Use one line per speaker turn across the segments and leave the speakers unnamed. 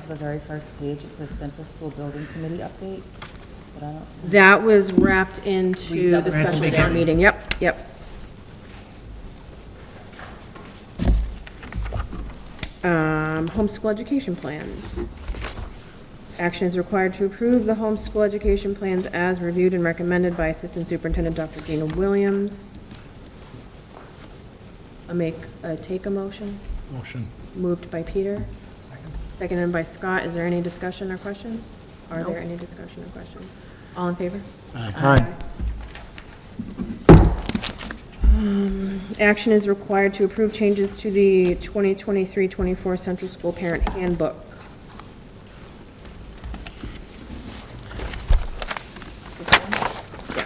the very first page, it says Central School Building Committee update, but I don't,
That was wrapped into the special town meeting, yep, yep. Um, homeschool education plans. Action is required to approve the homeschool education plans as reviewed and recommended by Assistant Superintendent Dr. Gina Williams. I make, uh, take a motion,
Motion.
moved by Peter, seconded by Scott. Is there any discussion or questions? Are there any discussion or questions? All in favor?
Aye.
Um, Action is required to approve changes to the 2023-24 Central School Parent Handbook.
this one?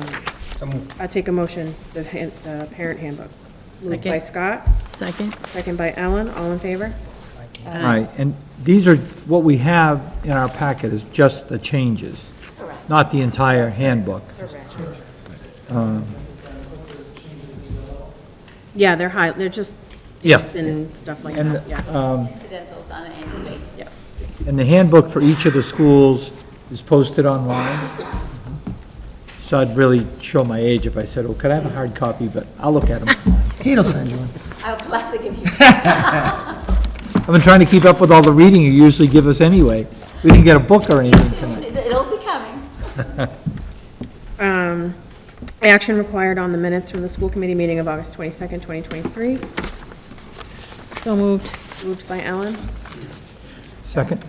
Yes.
So moved.
I take a motion, the han- the parent handbook. Moved by
Second.
Scott,
Second?
second by Ellen, all in favor?
Right, and these are, what we have in our packet is just the changes, not the entire handbook.
Yeah, they're high, they're just
Yeah.
dates and stuff like
And,
that, yeah.
incidentals on an annual basis.
And the handbook for each of the schools is posted online. So I'd really show my age if I said, oh, could I have a hard copy, but I'll look at them.
He'll send you one.
I'll gladly give you
I've been trying to keep up with all the reading you usually give us anyway. We didn't get a book or anything tonight.
It'll be coming.
Um, Action required on the minutes from the school committee meeting of August 22nd, 2023,
So moved.
moved by Ellen, Oh.
Second?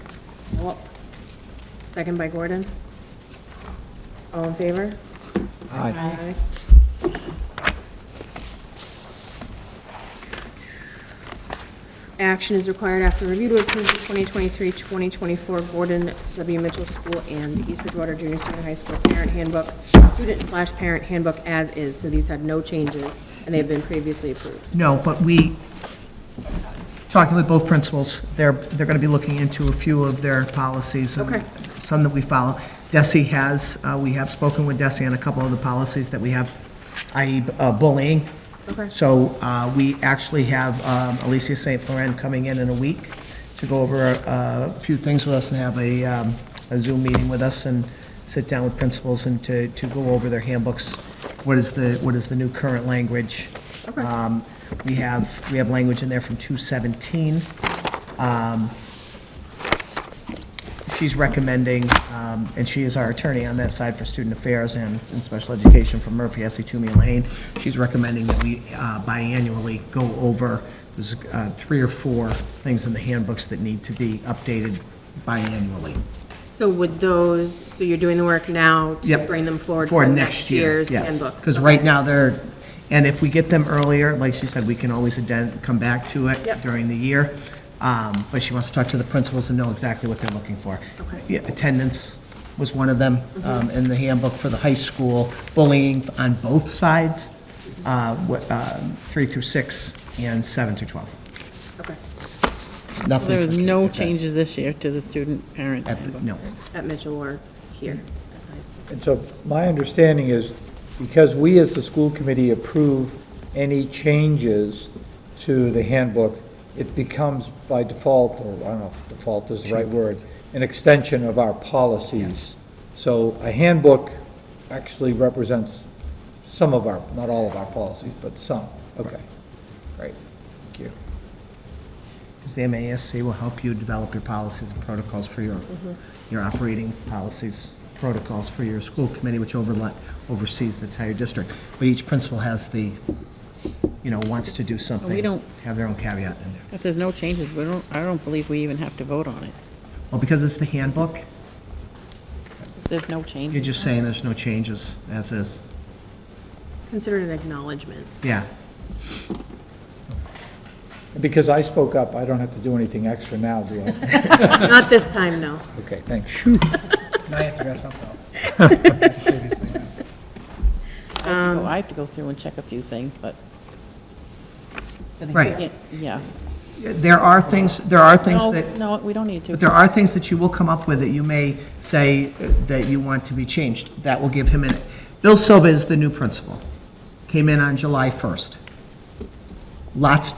second by Gordon. All in favor?
Aye.
Aye. Action is required after review to approve the 2023-2024 Gordon W. Mitchell School and East Bridgewater Junior Senior High School Parent Handbook, Student slash Parent Handbook as is, so these had no changes, and they've been previously approved.
No, but we, talking with both principals, they're, they're going to be looking into a few of their policies. and
Okay.
Some that we follow. Desi has, uh, we have spoken with Desi on a couple of the policies that we have, i.e. uh, bullying.
Okay.
So uh, we actually have um, Alicia St. Florent coming in in a week to go over uh, a few things with us and have a um, a Zoom meeting with us and sit down with principals and to, to go over their handbooks. What is the, what is the new current language?
Okay.
Um, We have, we have language in there from 217. Um, She's recommending, um, and she is our attorney on that side for student affairs and, and special education for Murphy, S.E. Toomey and Lane. She's recommending that we uh, biannually go over, there's uh, three or four things in the handbooks that need to be updated biannually.
So would those, so you're doing the work now to
Yep.
bring them forward
For
for next year's handbooks?
Because
Okay.
right now, they're, and if we get them earlier, like she said, we can always aden- come back to it
Yep.
during the year. Um, But she wants to talk to the principals and know exactly what they're looking for.
Okay. Mm-hmm.
Yeah, Attendance was one of them um, in the handbook for the high school, bullying on both sides, uh, what, um, three through six and seven through 12.
Okay,
Nothing.
There
for
was
kids
no
at that-
changes this year to the student-parent
at the-
handbook.
No.
at Mitchell or here at high school?
And so my understanding is, because we as the school committee approve any changes to the handbook, it becomes by default, or I don't know if default is the right word, an extension of our policies. So a handbook actually represents some of our, not all of our policies, but some. Okay. Great. Thank you.
Because the MASC will help you develop your policies and protocols for your, your operating policies, protocols for your school committee, which overla oversees the entire district. But each principal has the, you know, wants to do something.
don't-
Have their own caveat in there.
If there's no changes, we don't, I don't believe we even have to vote on it.
Well, because it's the handbook,
If There's no change.
you're just saying there's no changes, as is.
Consider it an acknowledgement.
Yeah.
Because I spoke up, I don't have to do anything extra now, do I?
Not this time, no.
Okay, thanks.
Now you have to dress up, though.
I have to go- I have to go through and check a few things, but,
For the-
Right.
yeah, yeah.
There are things, there are things
No,
that.
no, we don't need to.
But there are things that you will come up with that you may say uh, that you want to be changed. That will give him an, Bill Silva is the new principal. Came in on July 1st. Lots